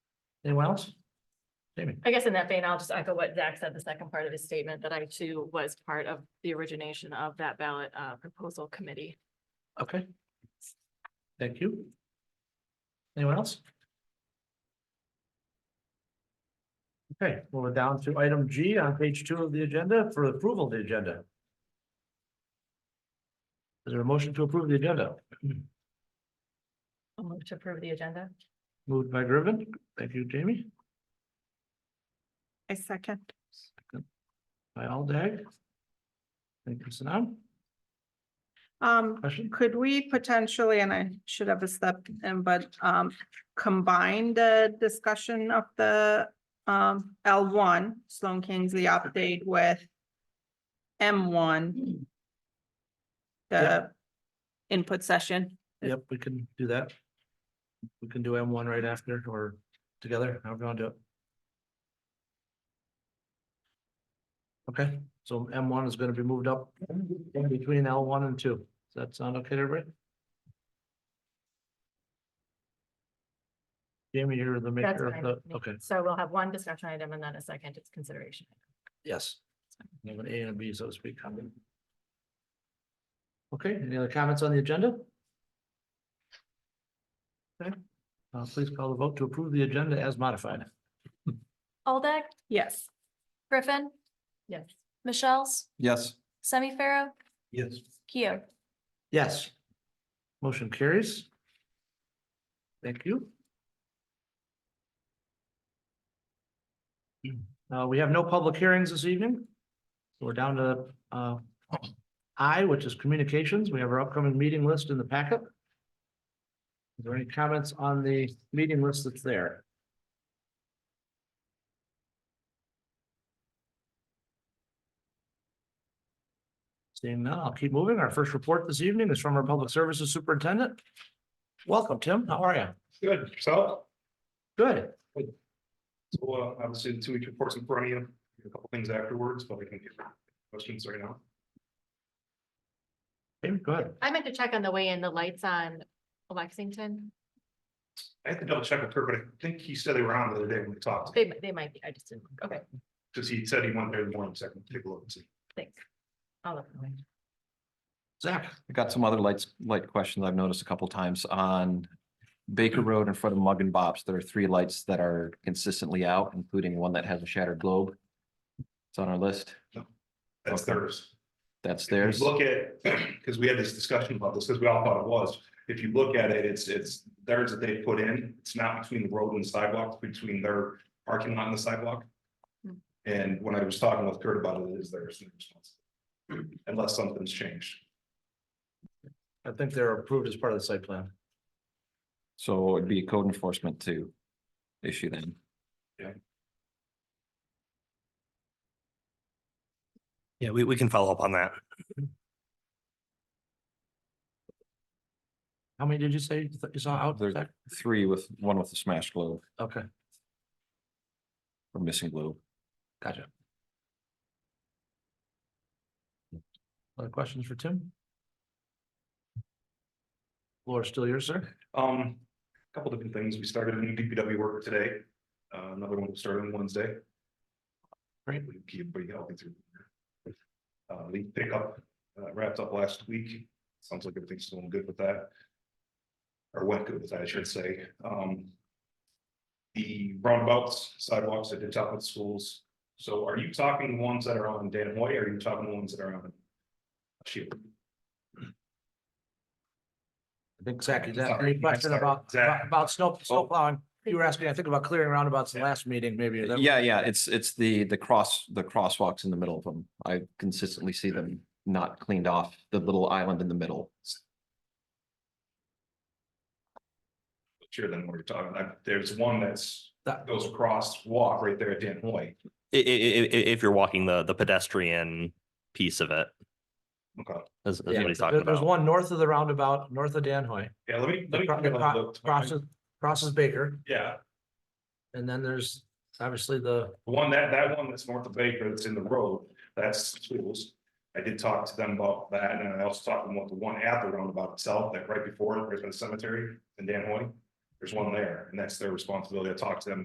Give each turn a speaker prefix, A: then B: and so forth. A: Anyone else? Jamie,
B: I guess in that vein, I'll just echo what Zach said, the second part of his statement, that I too was part of the origination of that ballot uh proposal committee.
A: okay. Thank you. Anyone else? Okay, well, we're down to item G on page two of the agenda for approval of the agenda. Is there a motion to approve the agenda?
B: I'll move to approve the agenda.
A: Moved by Griffin. Thank you, Jamie.
C: I second.
A: Second By Aldag. Thank you, Sanam.
C: Um,
A: Question?
C: could we potentially, and I should have a step in, but um, combine the discussion of the um, L one, Sloan Kingsley update with M one. The input session.
A: Yep, we can do that. We can do M one right after or together, however you want to do it. Okay, so M one is gonna be moved up in between L one and two. Does that sound okay to everybody? Jamie, you're the
B: That's
A: maker
B: fine
A: of
B: with
A: the,
B: me.
A: okay,
B: So we'll have one discussion item and then a second is consideration.
A: yes. You have an A and a B, so to speak, coming. Okay, any other comments on the agenda? Okay, uh, please call the vote to approve the agenda as modified.
D: Aldag,
C: Yes.
D: Griffin,
B: Yes.
D: Michelle's,
E: Yes.
D: Semi Pharaoh,
E: Yes.
D: Keo.
A: Yes. Motion carries. Thank you. Uh, we have no public hearings this evening. So We're down to, uh, I, which is communications. We have our upcoming meeting list in the packet. Is there any comments on the meeting list that's there? Seeing none, I'll keep moving. Our first report this evening is from our Public Services Superintendent. Welcome, Tim. How are you?
F: Good, so,
A: Good.
F: so uh, obviously the two week reports in front of you, a couple things afterwards, but we can get questions right now.
A: Jamie, Go ahead.
B: I meant to check on the way in, the lights on Lexington.
F: I have to double check with Kurt, but I think he said they were on the other day when we talked,
B: They they might be, I just didn't. look. Okay,
F: because he said he went there in the morning, so I can take a look and see.
B: thanks. I'll look.
A: Zach.
E: I got some other lights, light questions I've noticed a couple times on
F: Mm.
E: Baker Road in front of Mug and Bob's. There are three lights that are consistently out, including one that has a shattered globe. It's on our list.
F: That's
E: Okay.
F: theirs.
E: That's
F: If you
E: theirs.
F: Look at, because we had this discussion about this, because we all thought it was, if you look at it, it's, it's theirs that they put in, it's not between the road and the sidewalk, it's between their parking lot and the sidewalk.
B: Hmm.
F: And when I was talking with Kurt about it, it is theirs, their responsibility, unless something's changed.
A: I think they're approved as part of the site plan.
E: So it'd be a code enforcement to issue then.
G: Yeah, we, we can follow up on that.
A: How many did you say you th- you saw out?
E: There's
A: Zach?
E: three with, one with a smashed globe
A: Okay,
E: or missing globe.
A: gotcha. Other questions for Tim? Floor is still yours, sir.
F: Um, a couple different things. We started a new DPW worker today. Uh, another one will start on Wednesday. Right, we keep pretty healthy through. the year. Uh, leaf pickup uh, wrapped up last week. Sounds like everything's going good with that. Or went good with that, I should say. Um. The roundabouts sidewalks at the top of the schools. So are you talking the ones that are on Dan Hoy? or Are you talking the ones that are on? Shield?
A: I think Zach, is that
F: Sorry,
A: any question
F: sorry,
A: about,
F: Zach.
A: about snow, snow plowing? You were asking, I think, about clearing roundabouts in the last meeting, maybe. is that-
E: Yeah, yeah, it's, it's the, the cross, the crosswalks in the middle of them. I consistently see them not cleaned off, the little island in the middle.
F: Sure, then what you're talking, I- there's one that's
A: That-
F: goes across walk right there at Dan Hoy.
G: I- i- i- i- if you're walking the, the pedestrian piece of it,
F: Okay,
G: is, is what
A: Yeah,
G: he's talking
A: there- There's
G: about.
A: one north of the roundabout, north of Danhoy,
F: yeah, let me, let me.
A: Acro-
F: take a
A: acro-
F: look.
A: crosses, crosses Baker,
F: Yeah,
A: and then there's obviously the,
F: the one that, that one that's north of Baker, that's in the road, that's schools. I did talk to them about that, and I also talked to them about the one at the roundabout itself, that right before, it, right by the cemetery in Dan Hoy. There's one there, and that's their responsibility. I talked to them